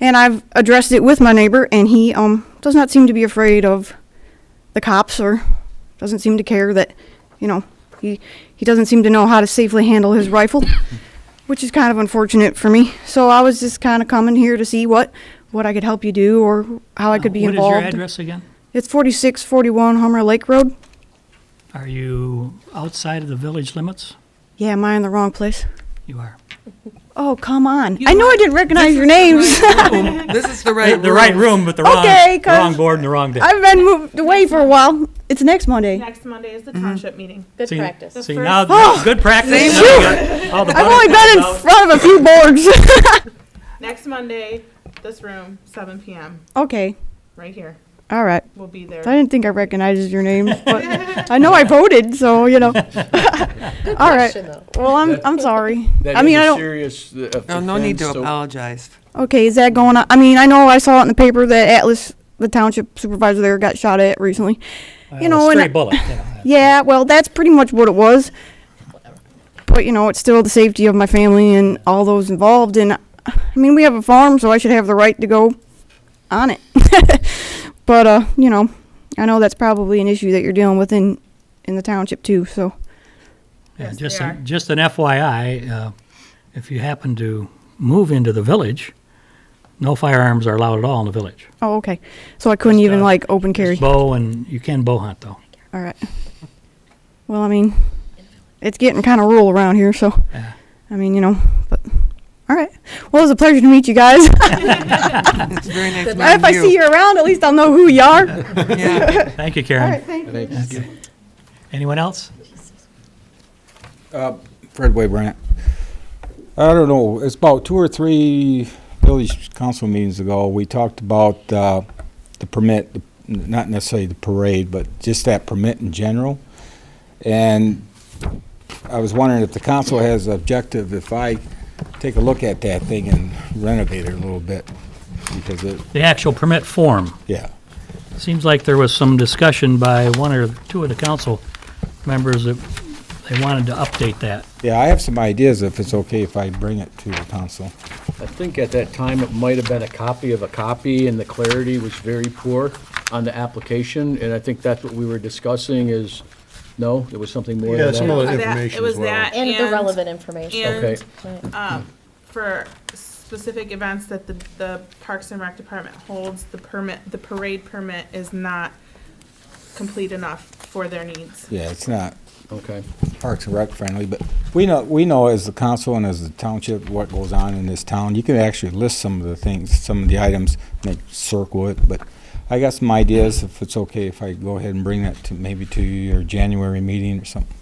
And I've addressed it with my neighbor, and he um, does not seem to be afraid of the cops or doesn't seem to care that, you know, he, he doesn't seem to know how to safely handle his rifle, which is kind of unfortunate for me. So I was just kind of coming here to see what, what I could help you do or how I could be Oh, What is your involved. address again? It's 4641 Homer Lake Road. Are you outside of the village limits? Yeah, am I in the wrong place? You are. Oh, come on. You I know are- I didn't recognize your names. This is the right The room. the right room, but the wrong, Okay, 'cause- wrong board and the wrong day. I've been moved away for a while. It's next Monday. Next Monday is the Mm-hmm. township meeting. Good See- practice. See, The now, first- good practice. Thank Now we got all the I've only butterflies been in out. front of a few boards. Next Monday, this room, seven PM, okay, right here. all right. We'll be I there. didn't think I recognized your name, but I know I voted, so you know. all right. Question, though. Well, I'm I'm sorry. That I mean, is I a don't. serious uh, offense. Oh, No, no need to so- apologize. Okay, is that going on? I mean, I know I saw it in the paper that Atlas, the township supervisor there, got shot at recently. Well, know, a and- Stray bullet, you know. Yeah, well, that's pretty much what it was. But you know, it's still the safety of my family and all those involved. And I mean, we have a farm, so I should have the right to go on it. but uh, you know, I know that's probably an issue that you're dealing with in in the township too. So Yeah, Yes, just, they an- are. just an FYI, uh, if you happen to move into the village, no firearms are allowed at all in the village. oh, okay. So I couldn't Just, even uh, like open carry. Bow, and you can bow hunt, though. all right. Well, I mean, it's getting kind of rural around here, so Yeah. I mean, you know, but. All right. Well, it was a pleasure to meet you guys. It's very nice meeting you. if I see you around, at least I'll know who you are. Yeah. Thank you, All right, Karen. thank you. Thank you. Anyone else? Fred Weybrandt. I don't know, it's about two or three village council meetings ago, we talked about uh, the permit, the- not necessarily the parade, but just that permit in general. And I was wondering if the council has objective, if I take a look at that thing and renovate it a little bit, because it, The actual permit form. yeah. Seems like there was some discussion by one or two of the council members that they wanted to update that. Yeah, I have some ideas if it's okay if I bring it to the council. I think at that time, it might have been a copy of a copy, and the clarity was very poor on the application, and I think that's what we were discussing is, no, there was something more Yeah, than some that? of the That- information It was as well. that And the and relevant information. Okay, and for specific events that the, the Parks and Rec Department holds, the permit, the parade permit is not complete enough for their needs. Yeah, it's not okay. Parks and Rec friendly, but we know, we know as the council and as the township, what goes on in this town. You can actually list some of the things, some of the items, make circle it, but I got some ideas if it's okay if I go ahead and bring that to, maybe to your January meeting or something.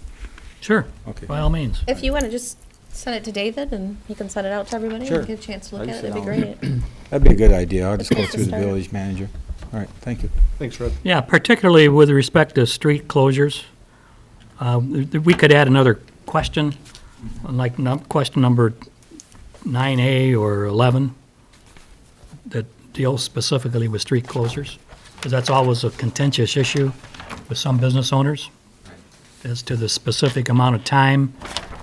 Sure, Okay. by all means. If you want to just send it to David and he can send it out to everybody Sure. and get a chance to look I'll at it, just that'd be send great. That'd be a good idea. I'll just go That's a through the start. village manager. All right, thank you. Thanks, Fred. Yeah, particularly with respect to street closures. Uh, th- th- We could add another question, like num- question number 9A or 11, that deals specifically with street closures, because that's always a contentious issue with some business owners, as to the specific amount of time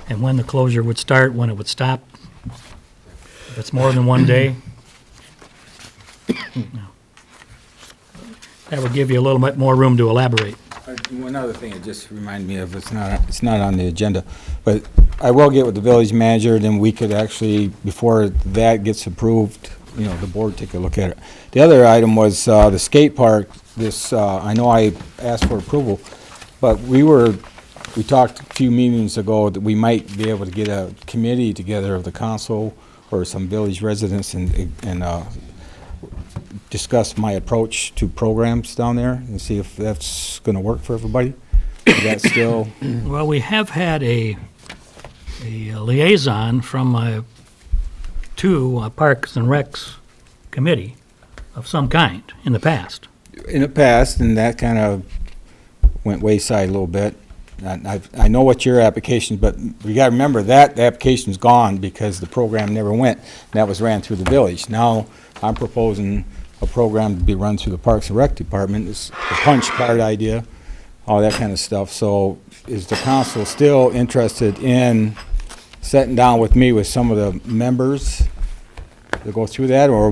and when the closure would start, when it would stop. If it's more than one day, that would give you a little bit more room to elaborate. Uh, One other thing, it just reminded me of, it's not, it's not on the agenda, but I will get with the village manager, then we could actually, before that gets approved, you know, the board take a look at it. The other item was uh, the skate park, this, uh, I know I asked for approval, but we were, we talked a few meetings ago that we might be able to get a committee together of the council or some village residents and, and uh, discuss my approach to programs down there and see if that's going to work for everybody. Is that still, Well, we have had a, a liaison from uh to a Parks and Recs committee of some kind in the past. in the past, and that kind of went wayside a little bit. And I, I know what your application, but we got to remember that the application's gone because the program never went. That was ran through the village. Now, I'm proposing a program to be run through the Parks and Rec Department, it's the punch card idea, all that kind of stuff. So is the council still interested in sitting down with me with some of the members to go through that, or